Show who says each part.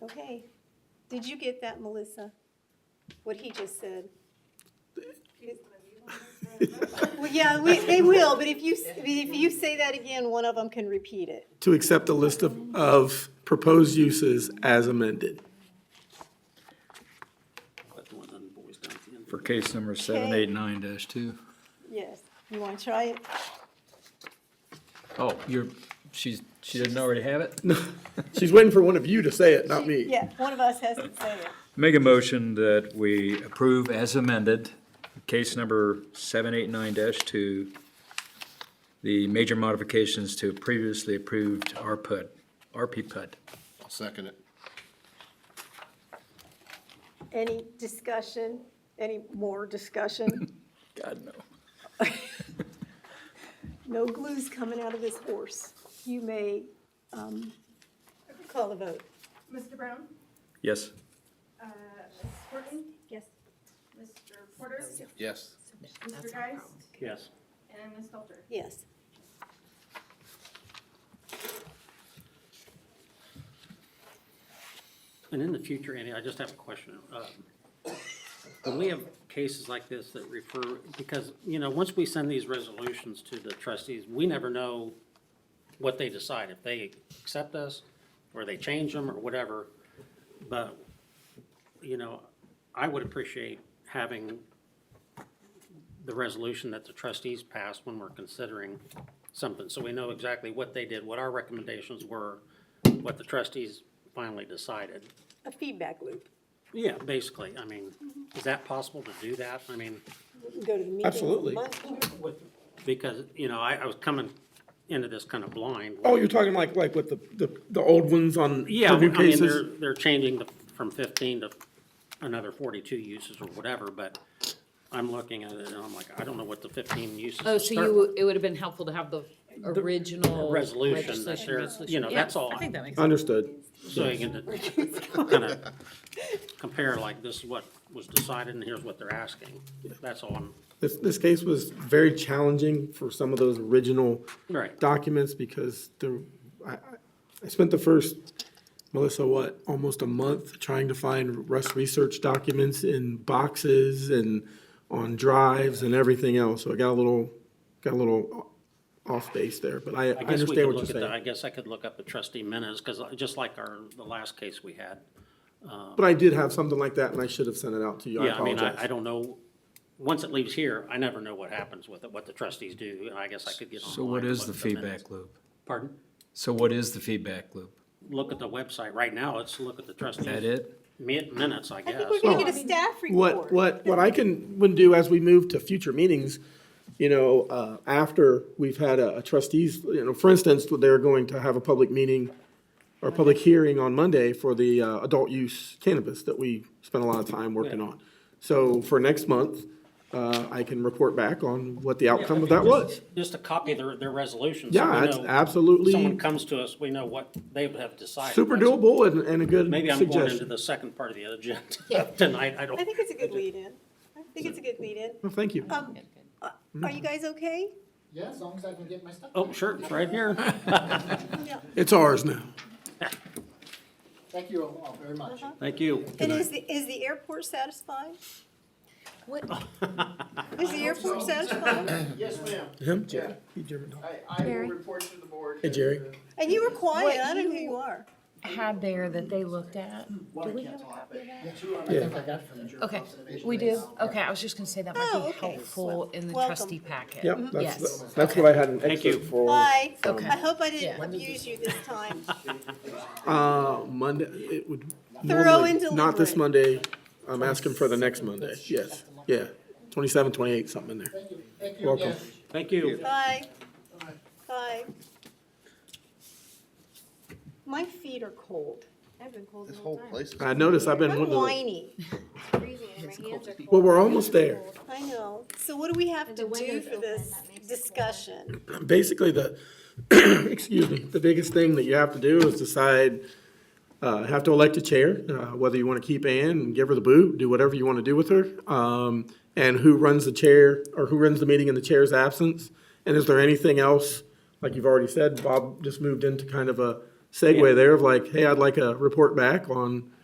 Speaker 1: Okay. Did you get that, Melissa? What he just said? Well, yeah, we, they will, but if you, s- if you say that again, one of them can repeat it.
Speaker 2: to accept a list of, of proposed uses as amended.
Speaker 3: for case number seven eight nine dash two.
Speaker 1: Yes. You want to try it?
Speaker 3: Oh, you're, she's, she doesn't already have it?
Speaker 2: She's waiting for one of you to say it, not me.
Speaker 1: Yeah, one of us has to say it.
Speaker 3: Make a motion that we approve as amended, case number seven eight nine dash two, the major modifications to previously approved RPUD, RP PUD.
Speaker 4: I'll second it.
Speaker 1: Any discussion? Any more discussion?
Speaker 3: God, no.
Speaker 1: No glue's coming out of this horse. You may, um, call the vote.
Speaker 5: Mr. Brown?
Speaker 3: Yes.
Speaker 5: Uh, Ms. Horton? Yes. Mr. Porter?
Speaker 4: Yes.
Speaker 5: Mr. Geist?
Speaker 6: Yes.
Speaker 5: And Ms. Stalter?
Speaker 1: Yes.
Speaker 6: And in the future, Andy, I just have a question. Um, When we have cases like this that refer, because, you know, once we send these resolutions to the trustees, we never know what they decide, if they accept us, or they change them, or whatever. But, you know, I would appreciate having the resolution that the trustees pass when we're considering something, so we know exactly what they did, what our recommendations were, what the trustees finally decided.
Speaker 1: A feedback loop.
Speaker 6: Yeah, basically, I mean, is that possible to do that? I mean,
Speaker 1: Go to the meeting.
Speaker 2: Absolutely.
Speaker 6: because, you know, I, I was coming into this kind of blind.
Speaker 2: Oh, you're talking like, like with the, the, the old ones on
Speaker 6: Yeah,
Speaker 2: for
Speaker 6: I
Speaker 2: new
Speaker 6: mean, they're,
Speaker 2: cases?
Speaker 6: they're changing the, from fifteen to another forty-two uses or whatever, but I'm looking at it and I'm like, I don't know what the fifteen uses.
Speaker 7: Oh, so
Speaker 6: start
Speaker 7: you, would- it would have been helpful to have the original
Speaker 6: Resolution that
Speaker 7: legislation
Speaker 6: they're, you know,
Speaker 7: resolution. Yeah,
Speaker 6: that's all.
Speaker 7: I think that makes sense.
Speaker 2: Understood.
Speaker 6: So you can kind of compare like this is what was decided and here's what they're asking. That's all I'm,
Speaker 2: This, this case was very challenging for some of those original
Speaker 6: right.
Speaker 2: documents because the, I, I- I spent the first, Melissa, what, almost a month trying to find Rust research documents in boxes and on drives and everything else. So I got a little, got a little off base there, but I, I
Speaker 6: I guess we
Speaker 2: understand
Speaker 6: could
Speaker 2: what you're
Speaker 6: look at the, I
Speaker 2: saying.
Speaker 6: guess I could look up the trustee minutes, because just like our, the last case we had.
Speaker 2: But I did have something like that and I should have sent it out to you. I
Speaker 6: Yeah, I mean,
Speaker 2: apologize.
Speaker 6: I, I don't know, once it leaves here, I never know what happens with it, what the trustees do, and I guess I could get online.
Speaker 3: So what
Speaker 6: and
Speaker 3: is
Speaker 6: look
Speaker 3: the
Speaker 6: at minutes.
Speaker 3: feedback loop?
Speaker 6: Pardon?
Speaker 3: So what is the feedback loop?
Speaker 6: Look at the website right now, let's look at the trustees.
Speaker 3: Is that it?
Speaker 6: Min- Minutes, I
Speaker 1: I
Speaker 6: guess.
Speaker 1: think we're gonna get a staff report.
Speaker 2: What, what, what I can, would do as we move to future meetings, you know, uh, after we've had a a trustees, you know, for instance, they're going to have a public meeting or public hearing on Monday for the, uh, adult use cannabis that we spent a lot of time working
Speaker 6: Yeah.
Speaker 2: on. So for next month, uh, I can report back on what the
Speaker 6: Yeah,
Speaker 2: outcome of
Speaker 6: I
Speaker 2: that
Speaker 6: mean,
Speaker 2: was.
Speaker 6: just- Just a copy of their, their resolution. so we
Speaker 2: Yeah, it's
Speaker 6: know Someone
Speaker 2: absolutely
Speaker 6: comes to us, we know what they have decided.
Speaker 2: super
Speaker 6: That's-
Speaker 2: doable and, and a good
Speaker 6: Maybe I'm going into
Speaker 2: suggestion.
Speaker 6: the second part of the agenda tonight, I don't.
Speaker 1: I think it's a good lead-in. I think it's a good lead-in.
Speaker 2: Well, thank you.
Speaker 1: Um, uh, are you guys okay?
Speaker 4: Yeah, as long as I can get my stuff.
Speaker 6: Oh, sure, it's right here.
Speaker 2: It's ours now.
Speaker 4: Thank you all all very much.
Speaker 7: Uh-huh.
Speaker 6: Thank you.
Speaker 1: And is the, is the airport satisfied?
Speaker 7: What-
Speaker 1: Is the airport satisfied?
Speaker 8: Yes, ma'am.
Speaker 2: Him? Jerry. He German dog.
Speaker 8: I, I will
Speaker 7: Barry?
Speaker 8: report to the board. uh,
Speaker 2: Hey, Jerry.
Speaker 1: And you were quiet, I don't know who
Speaker 7: you-
Speaker 1: you are.
Speaker 7: Had there that they looked at?
Speaker 8: One,
Speaker 7: Do
Speaker 8: I
Speaker 7: we
Speaker 8: can't
Speaker 7: have a
Speaker 8: talk,
Speaker 7: copy of that?
Speaker 8: but two, I think I got from the Journal
Speaker 7: Okay,
Speaker 8: Observation
Speaker 7: we
Speaker 8: Base.
Speaker 7: do? Okay, I was just gonna say that might
Speaker 1: Oh,
Speaker 7: be
Speaker 1: okay.
Speaker 7: helpful in the
Speaker 1: Welcome.
Speaker 7: trustee packet.
Speaker 2: Yep,
Speaker 7: Mm-hmm. Yes.
Speaker 2: that's, that's what I had an
Speaker 6: Thank you.
Speaker 2: excerpt for.
Speaker 1: Hi,
Speaker 7: Oh, Okay.
Speaker 1: I hope I didn't
Speaker 7: Yeah.
Speaker 1: abuse you this time.
Speaker 2: Uh, Monday, it would.
Speaker 1: Thorough
Speaker 2: normally-
Speaker 1: and
Speaker 2: Not this
Speaker 1: deliberate.
Speaker 2: Monday, I'm asking for the next Monday, yes, yeah, twenty-seven, twenty-eight, something in there.
Speaker 8: Thank you, thank you
Speaker 2: Welcome.
Speaker 8: again.
Speaker 6: Thank you.
Speaker 1: Bye. Bye. My feet are cold. I've been cold
Speaker 4: This whole place is.
Speaker 2: I noticed I've been,
Speaker 1: I'm
Speaker 2: well,
Speaker 1: whiny,
Speaker 2: we're almost there.
Speaker 1: I know. So what do we have to do for this discussion?
Speaker 2: Basically, the, excuse me, the biggest thing that you have to do is decide, uh, have to elect a chair, uh, whether you want to keep Ann and give her the boot, do whatever you want to do with her. Um, and who runs the chair, or who runs the meeting in the chair's absence? And is there anything else, like you've already said, Bob just moved into kind of a segue there of like, hey, I'd like a report back on